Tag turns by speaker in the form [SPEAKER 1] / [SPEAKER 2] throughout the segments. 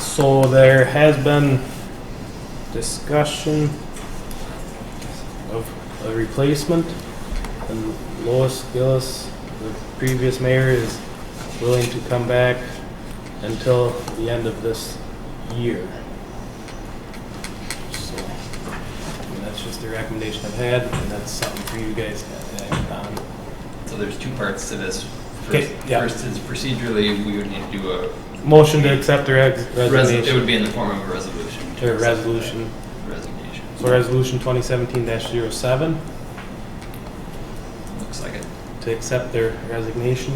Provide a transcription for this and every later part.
[SPEAKER 1] So there has been discussion of a replacement, and Lois Gillis, the previous mayor, is willing to come back until the end of this year. So, I mean, that's just the recommendation I've had, and that's something for you guys to act on.
[SPEAKER 2] So there's two parts to this. First
[SPEAKER 1] Okay, yeah.
[SPEAKER 2] first is procedurally, we would need to do a,
[SPEAKER 1] Motion to accept the res-
[SPEAKER 2] res- it
[SPEAKER 1] resignation,
[SPEAKER 2] would be in the form of a resolution.
[SPEAKER 1] to
[SPEAKER 2] accept that
[SPEAKER 1] resolution,
[SPEAKER 2] Resignation.
[SPEAKER 1] so resolution twenty seventeen 7
[SPEAKER 2] Looks like it.
[SPEAKER 1] to accept their resignation.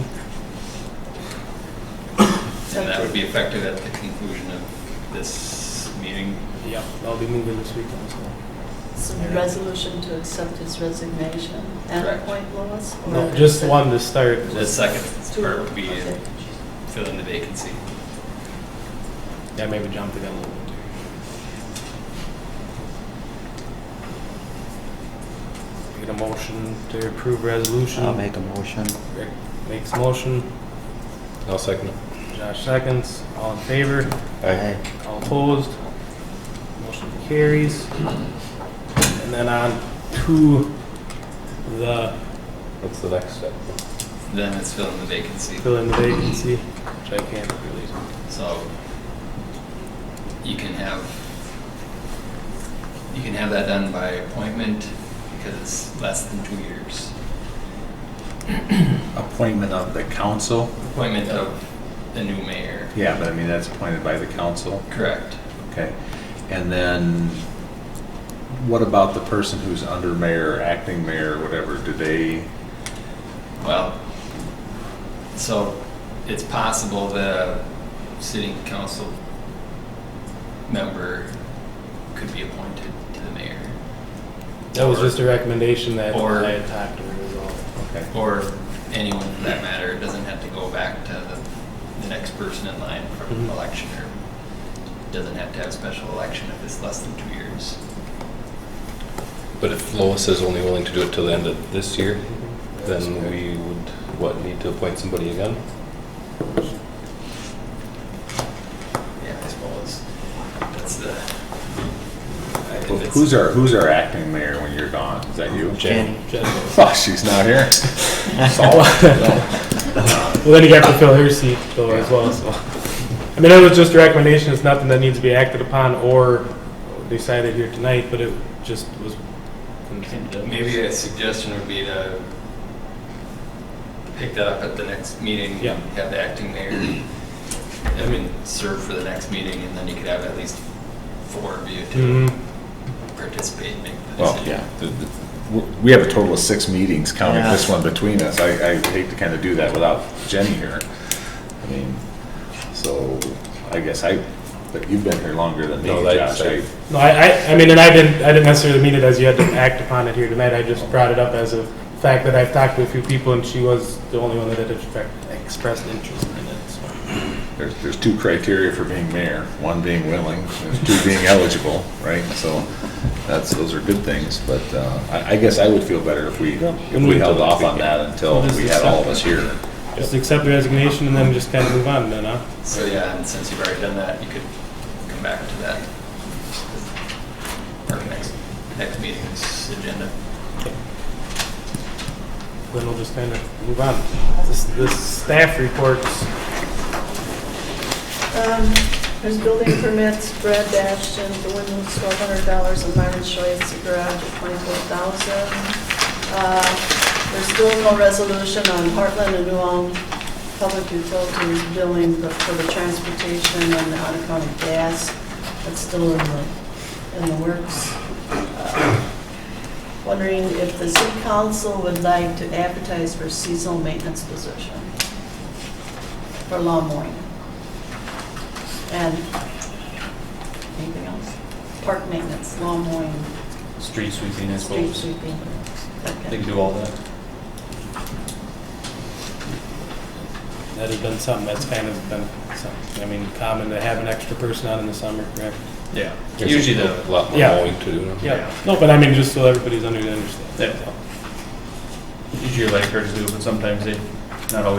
[SPEAKER 2] And that would be effective at the conclusion of this meeting.
[SPEAKER 1] Yep, I'll be moving this weekend, so.
[SPEAKER 3] So the resolution to accept his resignation at
[SPEAKER 2] Correct.
[SPEAKER 3] Point Lois? or
[SPEAKER 1] No, just
[SPEAKER 3] is it-
[SPEAKER 1] one to start.
[SPEAKER 2] The second
[SPEAKER 3] It's two.
[SPEAKER 2] part would be
[SPEAKER 3] Okay.
[SPEAKER 2] fill in the vacancy.
[SPEAKER 1] Yeah, maybe jump the gun a little bit. Get a motion to approve resolution.
[SPEAKER 4] I'll make a motion.
[SPEAKER 1] Rick Makes motion,
[SPEAKER 5] I'll second it.
[SPEAKER 1] Josh seconds, all in favor,
[SPEAKER 4] Aye.
[SPEAKER 1] all opposed. Motion carries. And then on to the
[SPEAKER 5] What's the next step?
[SPEAKER 2] Then it's fill in the vacancy.
[SPEAKER 1] fill in the vacancy, which I can't really.
[SPEAKER 2] So you can have, you can have that done by appointment because it's less than two years.
[SPEAKER 6] appointment of the council?
[SPEAKER 2] Appointment of the new mayor.
[SPEAKER 6] Yeah, but I mean, that's appointed by the council,
[SPEAKER 2] Correct.
[SPEAKER 6] okay. And then what about the person who's under mayor, acting mayor, whatever, do they,
[SPEAKER 2] Well, so it's possible the sitting council member could be appointed to the mayor.
[SPEAKER 1] That was just a recommendation that
[SPEAKER 2] Or-
[SPEAKER 1] I had talked to her as well.
[SPEAKER 6] okay.
[SPEAKER 2] Or anyone for that matter, it doesn't have to go back to the, the next person in line for
[SPEAKER 1] Mhm.
[SPEAKER 2] election or doesn't have to have a special election if it's less than two years.
[SPEAKER 5] But if Lois is only willing to do it till the end of this year, then we would, what, need to appoint somebody again?
[SPEAKER 2] Yeah, I suppose. That's the. I- if
[SPEAKER 6] Well,
[SPEAKER 2] it's-
[SPEAKER 6] Who's our, who's our acting mayor when you're gone? Is that you?
[SPEAKER 5] Jan.
[SPEAKER 1] Well,
[SPEAKER 6] Oh, she's not here.
[SPEAKER 1] then you have to fill her seat though as well, so. I mean, it was just a recommendation, it's nothing that needs to be acted upon or decided here tonight, but it just was.
[SPEAKER 2] Maybe a suggestion would be to pick that up at the next meeting.
[SPEAKER 1] Yeah.
[SPEAKER 2] Have the acting mayor, I mean, serve for the next meeting, and then you could have at least four of you
[SPEAKER 1] hmm
[SPEAKER 2] to
[SPEAKER 7] Mm-hmm.
[SPEAKER 2] participate, and make the
[SPEAKER 6] Well,
[SPEAKER 2] decision.
[SPEAKER 6] yeah, the- the- we- we have a total of six meetings counting this one between us. I, I hate to kind of do that without Jenny here. I mean, so I guess I, but you've been here longer than me,
[SPEAKER 5] No, like,
[SPEAKER 6] Josh. I-
[SPEAKER 1] No, I, I, I mean, and I didn't, I didn't necessarily mean it as you had to act upon it here tonight, I just brought it up as a fact that I've talked to a few people and she was the only one that had expressed- expressed interest in it, so.
[SPEAKER 6] There's, there's two criteria for being mayor, one being willing, there's two being eligible, right? So that's, those are good things, but uh, I, I guess I would feel better if we,
[SPEAKER 1] Yeah.
[SPEAKER 6] if we held off on that until we had all of us here.
[SPEAKER 1] Just accept the resignation and then just kind of move on then, huh?
[SPEAKER 2] So, yeah, and since you've already done that, you could come back to that. Our next, next meeting's agenda.
[SPEAKER 1] then we'll just kind of move on. This, this staff reports,
[SPEAKER 3] Um, There's building permits, Brad Ashton, the window's twelve hundred dollars, and Myron Schweitz, the garage at twenty-four thousand. Uh, There's still no resolution on Heartland and New Ulm Public Utilities billing for- for the transportation and the out-of-county gas. That's still in the, in the works. Uh, Wondering if the city council would like to advertise for seasonal maintenance position for lawn mowing. And anything else? Park maintenance, lawn mowing,
[SPEAKER 7] Street sweeping, I
[SPEAKER 3] street
[SPEAKER 7] suppose.
[SPEAKER 3] sweeping.
[SPEAKER 7] They can do all that.
[SPEAKER 1] that has been something that's kind of been, something, I mean, common to have an extra person out in the summer, correct?
[SPEAKER 7] Yeah.
[SPEAKER 5] There's
[SPEAKER 7] Usually
[SPEAKER 5] a
[SPEAKER 7] the,
[SPEAKER 5] Lot more
[SPEAKER 1] Yeah.
[SPEAKER 5] mowing to do. now.
[SPEAKER 1] Yeah. No, but I mean, just so everybody's under, understand.
[SPEAKER 7] Yeah. usually your lifeguards do, but sometimes they, not always